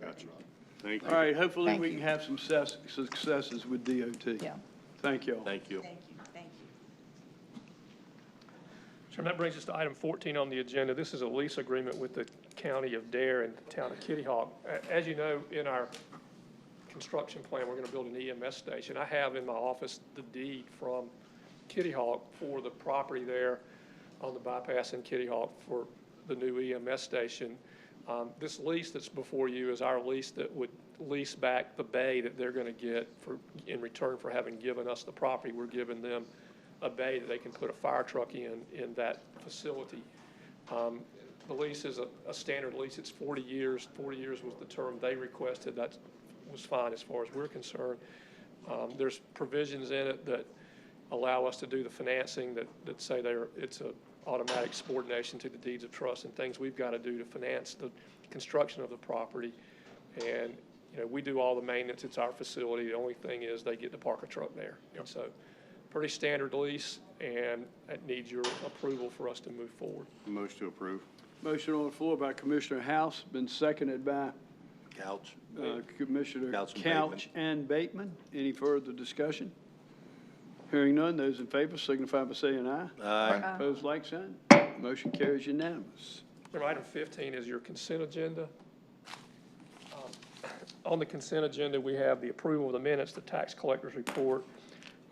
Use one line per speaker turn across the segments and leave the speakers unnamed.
Gotcha.
Thank
All right, hopefully
Thank
we
you.
can have some success, successes with DOT.
Yeah.
Thank y'all.
Thank
Thank
you.
you, thank you.
Chairman, that brings us to item 14 on the agenda. This is a lease agreement with the county of Dare and the town of Kitty Hawk. A- As you know, in our construction plan, we're going to build an EMS station. I have in my office the deed from Kitty Hawk for the property there on the bypass in Kitty Hawk for the new EMS station. Um, This lease that's before you is our lease that would lease back the bay that they're going to get for, in return for having given us the property. We're giving them a bay that they can put a fire truck in, in that facility. Um, The lease is a, a standard lease, it's 40 years, 40 years was the term they requested, that was fine as far as we're concerned. Um, There's provisions in it that allow us to do the financing that, that say they're, it's a automatic subordination to the deeds of trust and things we've got to do to finance the construction of the property. And, you know, we do all the maintenance, it's our facility, the only thing is they get to park a truck there. And so, pretty standard lease, and it needs your approval for us to move forward.
Motion to approve.
Motion on the floor by Commissioner House, been seconded by
Couch.
uh, Commissioner
Couch and
Couch and Bateman. Any further discussion? Hearing none, those in favor signify by saying aye.
Aye.
Opposed, like sign. Motion carries unanimous.
Number item 15 is your consent agenda. Um, On the consent agenda, we have the approval of the minutes, the tax collector's report,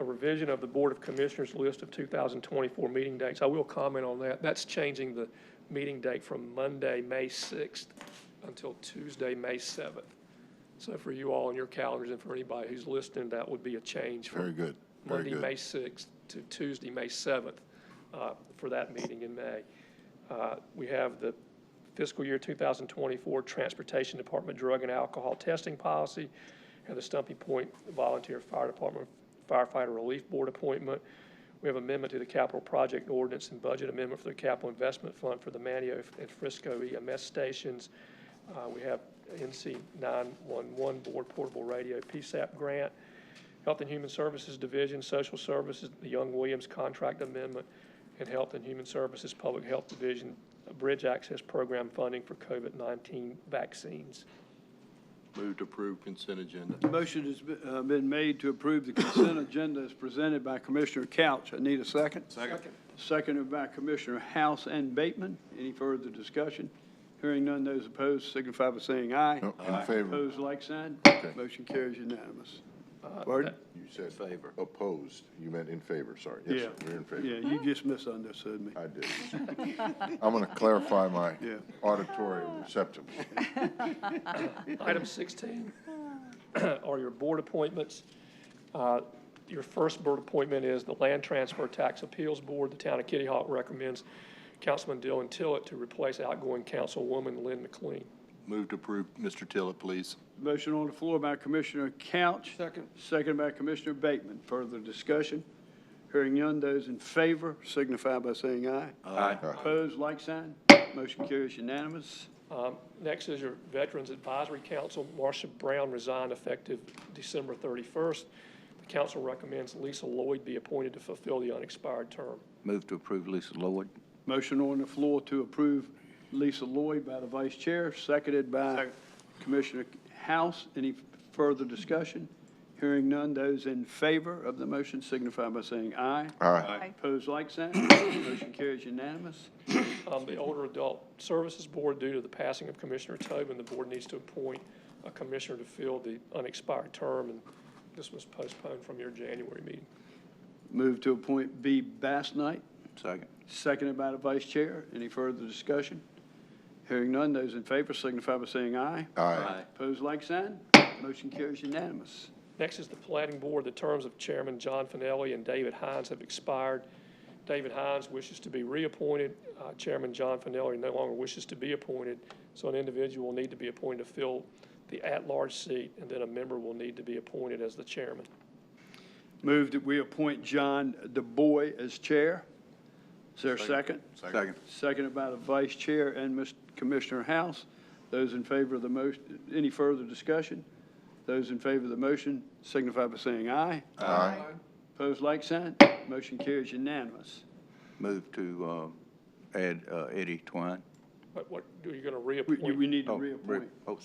a revision of the Board of Commissioners list of 2024 meeting dates. I will comment on that. That's changing the meeting date from Monday, May 6th until Tuesday, May 7th. So for you all on your calendars and for anybody who's listening, that would be a change from
Very good, very
Monday,
good.
May 6th to Tuesday, May 7th, uh, for that meeting in May. Uh, We have the fiscal year 2024 Transportation Department Drug and Alcohol Testing Policy, and the Stumpy Point Volunteer Fire Department Firefighter Relief Board appointment. We have amendment to the capital project ordinance and budget amendment for the capital investment fund for the Manio and Frisco EMS stations. Uh, We have NC 911 Board Portable Radio PSAP grant. Health and Human Services Division, Social Services, the Young Williams Contract Amendment, and Health and Human Services Public Health Division, uh, Bridge Access Program funding for COVID-19 vaccines.
Move to approve consent agenda.
Motion has be- uh, been made to approve the consent agenda as presented by Commissioner Couch. I need a second.
Second.
Seconded by Commissioner House and Bateman. Any further discussion? Hearing none, those opposed signify by saying aye.
No, Oh, In favor,
Opposed, like sign. Motion carries unanimous.
Uh,
Pardon?
you said
Favor.
opposed, you meant in favor, sorry. Yes, sir, You're in favor.
Yeah, you just misunderstood me.
I did. I'm going to clarify my
Yeah.
auditory receptacles.
Item 16 are your board appointments. Uh, Your first board appointment is the Land Transfer Tax Appeals Board. The town of Kitty Hawk recommends Councilman Dylan Tillett to replace outgoing Councilwoman Lynn McLean.
Move to approve, Mr. Tillett, please.
Motion on the floor by Commissioner Couch. Second. Seconded by Commissioner Bateman. Further discussion? Hearing none, those in favor signify by saying aye.
Aye.
Opposed, like sign. Motion carries unanimous.
Um, Next is your Veterans Advisory Council. Marcia Brown resigned effective December 31st. The council recommends Lisa Lloyd be appointed to fulfill the unexpired term.
Move to approve Lisa Lloyd.
Motion on the floor to approve Lisa Lloyd by the vice chair, seconded by Commissioner House. Any further discussion? Hearing none, those in favor of the motion signify by saying aye.
Aye.
Opposed, like sign. Motion carries unanimous.
Um, The Older Adult Services Board, due to the passing of Commissioner Tobin, the board needs to appoint a commissioner to fill the unexpired term, and this was postponed from your January meeting.
Move to appoint B. Bass Knight,
Second.
seconded by the vice chair. Any further discussion? Hearing none, those in favor signify by saying aye.
Aye.
Opposed, like sign. Motion carries unanimous.
Next is the Planning Board. The terms of Chairman John Finelli and David Hines have expired. David Hines wishes to be reappointed. Uh, Chairman John Finelli no longer wishes to be appointed, so an individual will need to be appointed to fill the at-large seat, and then a member will need to be appointed as the chairman.
Move that we appoint John DeBoy as chair. Is there a second?
Second.
Seconded by the vice chair and Mr. Commissioner House. Those in favor of the motion, any further discussion? Those in favor of the motion signify by saying aye.
Aye.
Opposed, like sign. Motion carries unanimous.
Move to um, add uh, Eddie Twine.
But what, are you going to
We,
reappoint?
we need to
Oh, re-
reappoint.
oh,